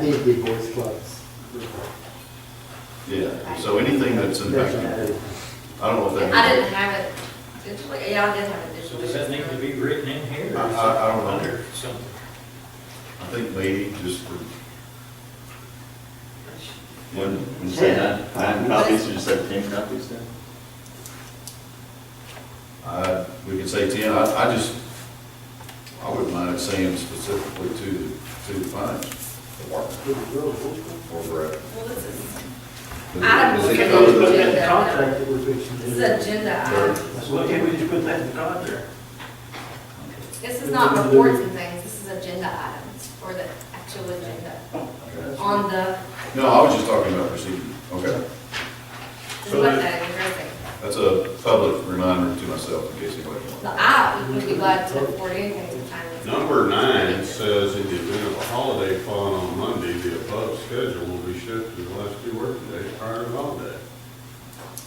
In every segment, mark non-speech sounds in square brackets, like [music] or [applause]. need to be voice clubs. Yeah, so anything that's impacted, I don't know if I that, didn't have it digitally, yeah, I did have it So digitally. does that need to be written in here? or I- I- I don't know. Under something. I think maybe just for When, when you say nine, nine copies, you said ten copies then? I, we could say ten, I, I just, I wouldn't mind saying specifically to, to the fines, the work, or for. Well, this is, I don't think Well, it's- The Contract that we're fixing to this is do. agenda item. That's why can't we just put that in the contract? This is not reports and things, this is agenda items, or the actual agenda on the, No, I was just talking about proceeding, okay, this is what that is, right? that's a public reminder to myself in case anybody wants. The I would be glad to report anything to finance. Number nine says in the event of a holiday falling on Monday, the above schedule will be shifted to the last two working days prior to the holiday.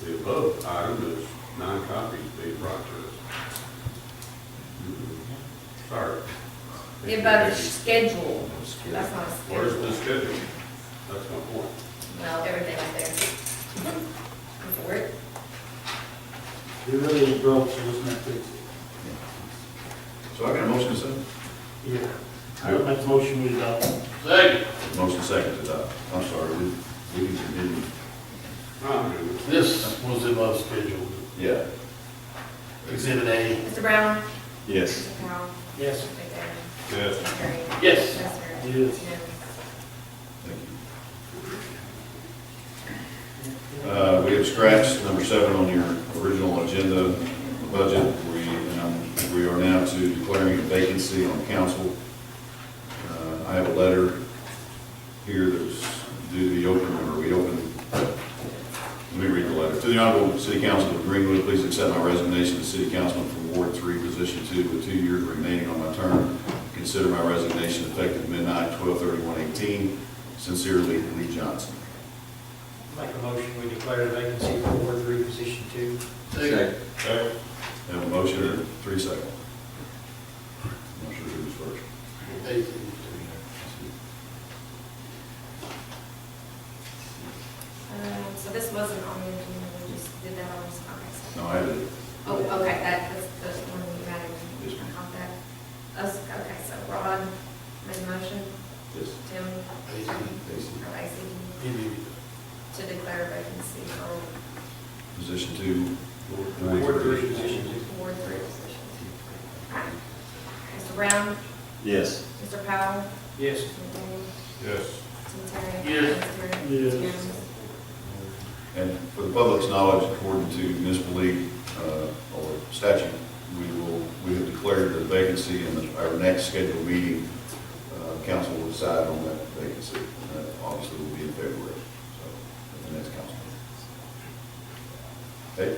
The above item is nine copies being brought to us. Sorry. The above schedule, that's not a Where's the schedule. schedule? That's my point. Well, everything up there. [laughs] For it. We really broke, so let's not fix it. So I got a motion second, Yeah. I would make a motion uh, with that. Second, motion second to adopt, I'm sorry, we, we can continue, I'm good with this was above schedule, yeah. exhibit A. Mr. Brown? Yes. Mr. Powell? Yes. Mr. it. Yes. Terry? Yes. Mr. Yes. Thank you. Uh, We have scratched number seven on your original agenda, the budget. We, um, we are now to declaring a vacancy on council. Uh, I have a letter here that was due to be opened, or we opened. Let me read the letter. To the Honorable City Council of Greenwood, please accept my resignation as City Councilman from Ward Three, Position Two, with two years remaining on my term. Consider my resignation effective midnight, twelve thirty-one eighteen. Sincerely, Lee Johnson. Make a motion, we declare a vacancy for Ward Three, position two. Second. Okay. Have a motion in three seconds. Not sure who was first. Um, So this wasn't on the agenda, we just did that on, okay. No, I did. Oh, okay, that, that's the one you got Yes, in, ma'am. on that. Us- Okay, so Rod made a motion, Yes. Tim? Lacy. Or Lacy, to declare vacancy for Position two. Ward Three, position two. Ward Three position. Alright. Mr. Brown, Yes. Mr. Powell, Yes. Mr. Daniel, Yes. Mr. Terry. Yes. Mr. Yes. Jones. And for the public's knowledge, according to municipal league, uh, or statute, we will, we have declared the vacancy in the- our next scheduled meeting. Uh, Council will decide on that vacancy. And that Obviously, will be in February, so, at the next council. meeting. Okay?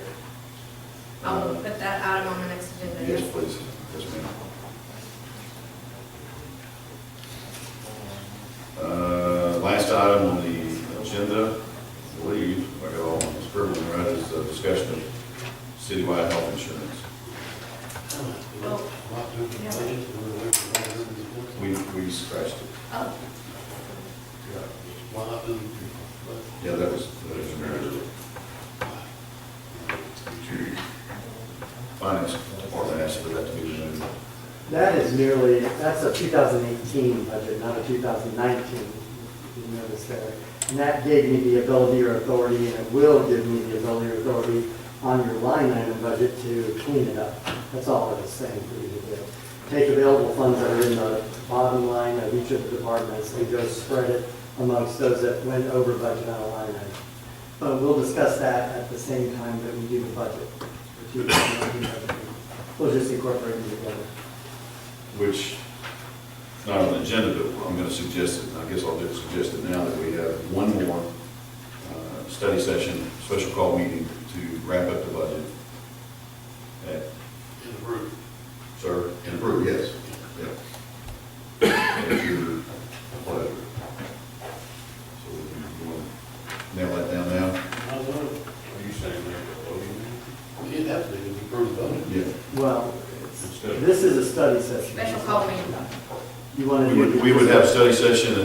Uh, I will put that item on the next agenda. Yes, please. Yes, ma'am. Uh, Last item on the agenda, I believe, if I got all my scribbling right, is the discussion of citywide health insurance. We, we scratched it. Oh, Yeah, that was, that was a matter finance department asked for that to be removed. That is merely, that's a 2018 budget, not a 2019. You notice that. And that gave me the ability or authority, and it will give me the ability or authority on your line item budget to clean it up. That's all it is saying for you to do. Take available funds that are in the bottom line of each of the departments and go spread it amongst those that went over budget on a line item. But we'll discuss that at the same time that we do the budget. for 2019. We'll just incorporate them together. which, it's not on the agenda, but I'm going to suggest it, and I guess I'll just suggest it now, that we have one more uh, study session, special call meeting to wrap up the budget. At, sir, and approve, yes. Yeah. At your pleasure. So we want to nail that down now? Are you saying that voting? It'd have to be approved, wouldn't it? Yeah. Well, Instead of- this is a study session. special call meeting. You want to We would, we would have study session and